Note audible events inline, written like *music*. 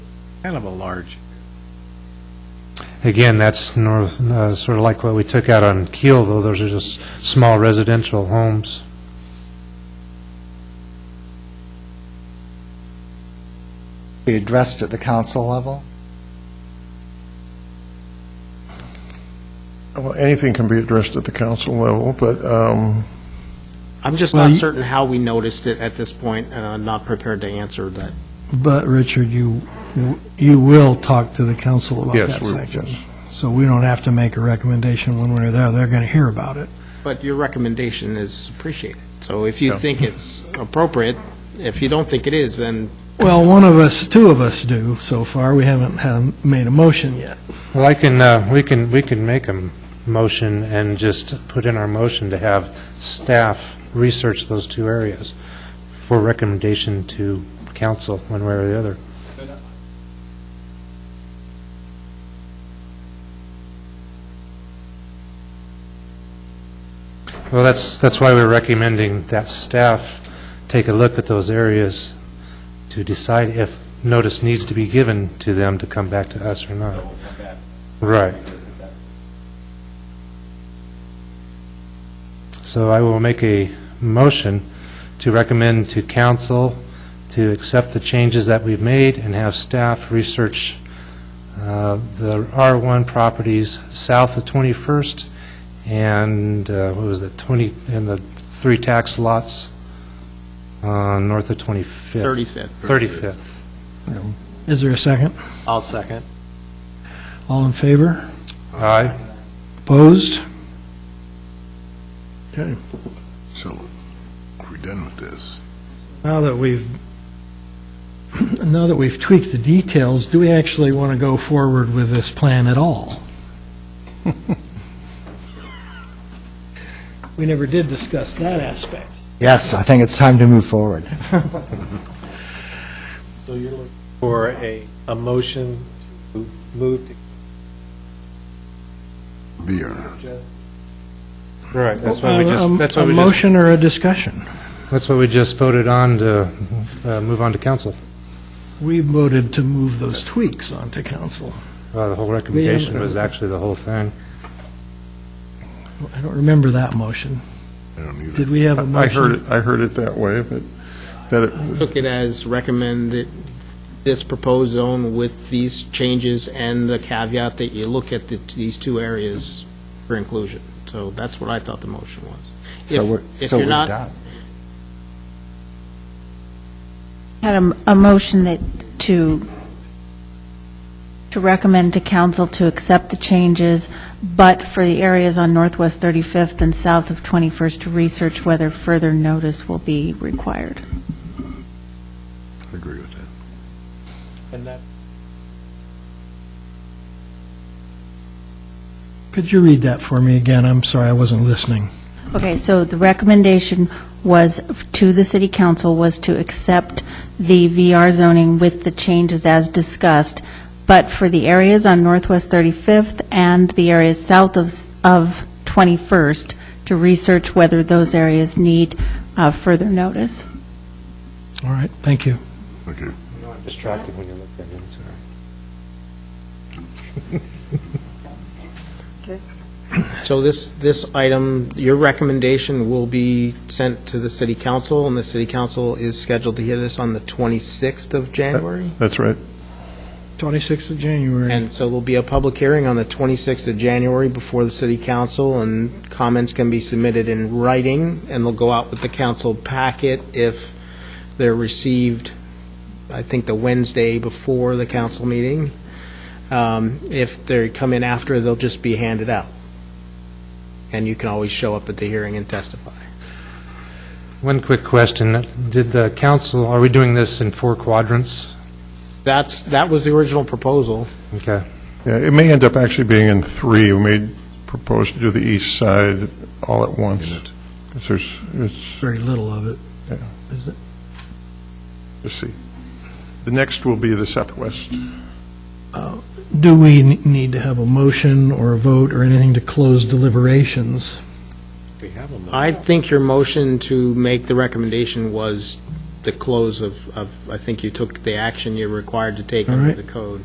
kind of a large. Again, that's north, uh, sort of like what we took out on Keel, though, those are just small residential homes. be addressed at the council level? Well, anything can be addressed at the council level, but, um, I'm just Well, not you- certain how we noticed it at this point, and I'm not prepared to answer that. But, Richard, you, you will talk to the council about Yes, that we- section. yes. So we don't have to make a recommendation when we're there, they're going to hear about it. But your recommendation is appreciated. So if you Yeah. think it's appropriate, if you don't think it is, then Well, one of us, two of us do so far, we haven't um, made a motion yet. Well, I can, uh, we can, we can make a m- motion and just put in our motion to have staff research those two areas for recommendation to council, one way or the other. Well, that's, that's why we're recommending that staff take a look at those areas to decide if notice needs to be given to them to come back to us or not. Right. So I will make a motion to recommend to council to accept the changes that we've made and have staff research uh, the R1 properties south of 21st and, uh, what was it, 20, and the three tax lots uh, north of 25th. 35th. 35th. Is there a second? I'll second. All in favor? Aye. Opposed? okay. So, we're done with this. Now that we've, *clears throat* now that we've tweaked the details, do we actually want to go forward with this plan at *laughs* all? We never did discuss that aspect. Yes, I think it's time to move forward. So you're looking for a, a motion to move to Beer. just Right, that's what we A- a- just, that's what we just Um, A motion or a discussion? That's what we just voted on to uh, move on to council, We voted to move those tweaks onto council. Uh, the whole recommendation was actually the whole thing. I don't remember that motion. I don't either. Did we have a I motion? heard it, I heard it that way, but that it, Took it as recommended, this proposed zone with these changes and the caveat that you look at the- these two areas for inclusion. So that's what I thought the motion was. So If- we're, if so you're we're not- done. Had a, a motion that, to, to recommend to council to accept the changes, but for the areas on Northwest 35th and south of 21st to research whether further notice will be required. I agree with that. and that Could you read that for me again? I'm sorry, I wasn't listening. Okay, so the recommendation was, to the city council, was to accept the VR zoning with the changes as discussed, but for the areas on Northwest 35th and the areas south of, of 21st, to research whether those areas need uh, further notice. All right, thank you. Okay. Distracted when you looked at him, sorry. So this, this item, your recommendation will be sent to the city council, and the city council is scheduled to hear this on the 26th of January? that's right. 26th of January. And so there'll be a public hearing on the 26th of January before the city council, and comments can be submitted in writing, and they'll go out with the council packet if they're received, I think, the Wednesday before the council meeting. Um, If they come in after, they'll just be handed out. And you can always show up at the hearing and testify. One quick question, did the council, are we doing this in four quadrants? That's, that was the original proposal. Okay. Yeah, it may end up actually being in three. We may propose to do the east side all at once. Because there's, it's, Very little of it. yeah, Is it? let's see. The next will be the southwest. Uh, Do we n- need to have a motion or a vote or anything to close deliberations? we have a motion. I think your motion to make the recommendation was the close of, of, I think you took the action you're required to take All under right. the code.